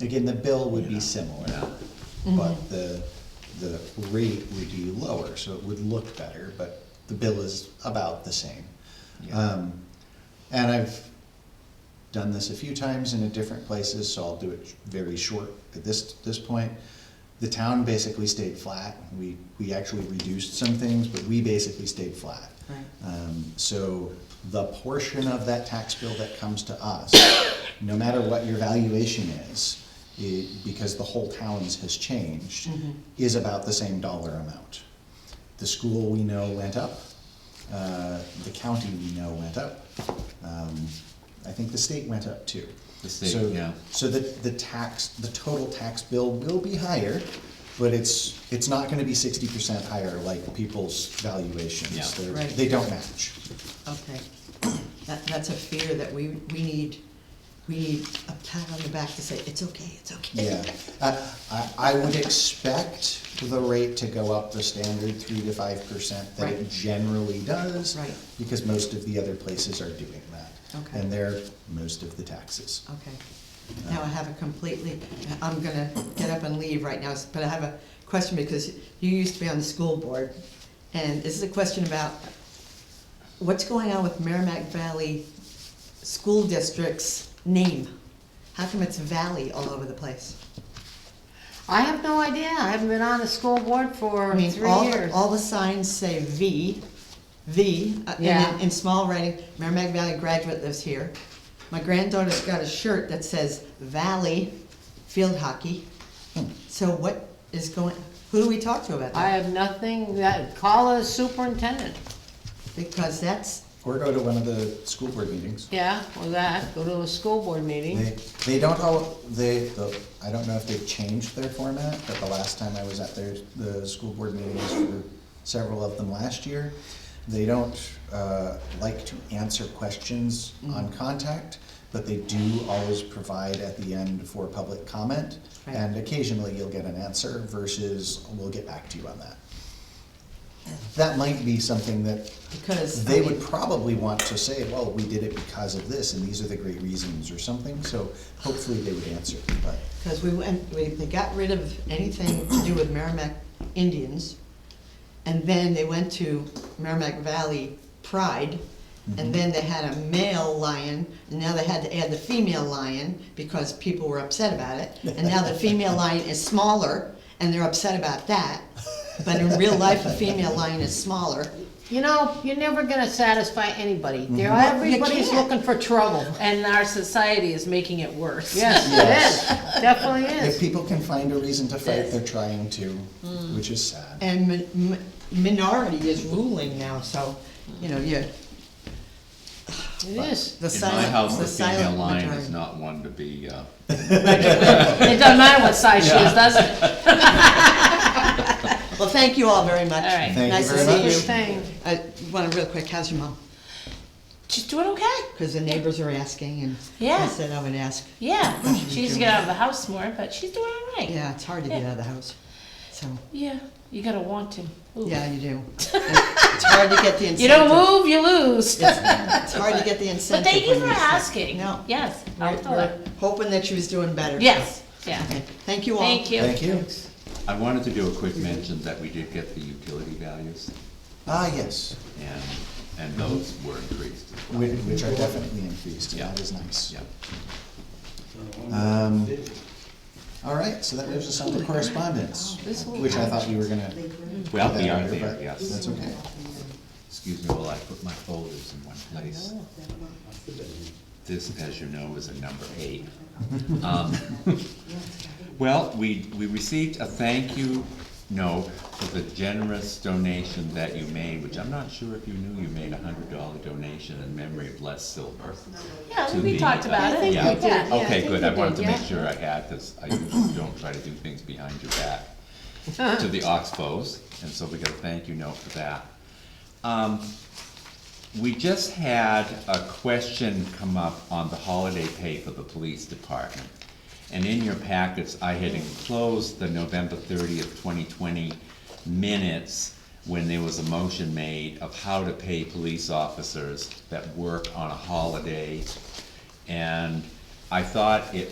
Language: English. Again, the bill would be similar, but the, the rate would be lower, so it would look better, but the bill is about the same. Um, And I've done this a few times in a different places, so I'll do it very short at this, this point. The town basically stayed flat, we, we actually reduced some things, but we basically stayed flat. Right. Um, So the portion of that tax bill that comes to us, no matter what your valuation is, it, because the whole town's has changed, is about the same dollar amount. The school we know went up, uh, the county we know went up, um, I think the state went up too. The state, So- yeah. So the, the tax, the total tax bill will be higher, but it's, it's not gonna be sixty percent higher like people's valuations. Yeah. They're- Right. They don't match. Okay, that, that's a fear that we, we need, we need a pat on the back to say, it's okay, it's okay. Yeah, I, I- I would expect the rate to go up the standard three to five percent that it Right. generally does. Right. Because most of the other places are doing that. Okay. And they're most of the taxes. Okay, now I have a completely, I'm gonna get up and leave right now, but I have a question because you used to be on the school board. And this is a question about what's going on with Merrimack Valley School District's name? How come it's Valley all over the place? I have no idea. I haven't been on the school board for I mean, three all, years. all the signs say V, V, uh, and Yeah. in, in small writing, Merrimack Valley graduate lives here. My granddaughter's got a shirt that says Valley Field Hockey. So what is going, who do we talk to about I that? have nothing that, call the superintendent. Because that's, Or go to one of the school board meetings. Yeah, or that, go to a school board meeting. They, they don't all, they, the- I don't know if they've changed their format, but the last time I was at their, the school board meetings for several of them last year, they don't, uh, like to answer questions on contact, but they do always provide at the end for public comment. Right. And occasionally you'll get an answer versus we'll get back to you on that. That might be something that because. I they mean, would probably want to say, well, we did it because of this, and these are the great reasons or something, so hopefully they would answer, but, Because we went, we, they got rid of anything to do with Merrimack Indians, and then they went to Merrimack Valley Pride, and then they had a male lion, and now they had to add the female lion, because people were upset about it, and now the female lion is smaller, and they're upset about that, but in real life, the female lion is smaller, You know, you're never gonna satisfy anybody. There, Well, you everybody's can't. looking for trouble. And our society is making it worse. Yes, it is. Definitely if is. people can find a reason to fight, they're trying to, which is sad. and mi- mi- minority is ruling now, so, you know, you're, It is. the In my silent, house, the the female silent line is majority. not one to be, uh, It doesn't matter what size she is, does it? Well, thank you all very much. All right. Thank you Nice to very see much. you. Good thing. I want to real quick, how's your mom? She's doing okay. Because the neighbors are asking, and I Yeah. said I would ask. Yeah, Oh, she needs to get out of the house more, but she's doing all right. Yeah, it's hard to get out of the house, so, Yeah, you gotta want to. Ooh. yeah, you do. It's hard to get the incentive. You don't move, you lose. It's hard to get the But incentive. thank you when for you're sick. asking. No. Yes, I'll We're- tell we're her. Hoping that she was doing better. Yes, yeah. Okay, Thank you all. Thank you. Thank you. I wanted to do a quick mention that we did get the utility values, Ah, yes, and, and those were increased as well. which, which are definitely increased, and that is nice. Yeah. Um, all right, so that leaves us on to correspondence, This will- which I thought you were gonna. do Well, we that are later, there, but yes. That's okay. Excuse me while I put my folders in one place. This, as you know, is a number eight. Um, Well, we, we received a thank you note for the generous donation that you made, which I'm not sure if you knew you made a hundred dollar donation in memory of Les Silver. Yeah, to we the- talked about it. Yeah. we did, yeah, I Okay, think good, we I wanted did, to make yeah. sure I had, because I usually don't try to do things behind your back to the Oxbows, and so we got a thank you note for that. Um, We just had a question come up on the holiday pay for the police department. And in your packets, I had enclosed the November thirtieth, twenty twenty minutes when there was a motion made of how to pay police officers that work on a holiday. And I thought it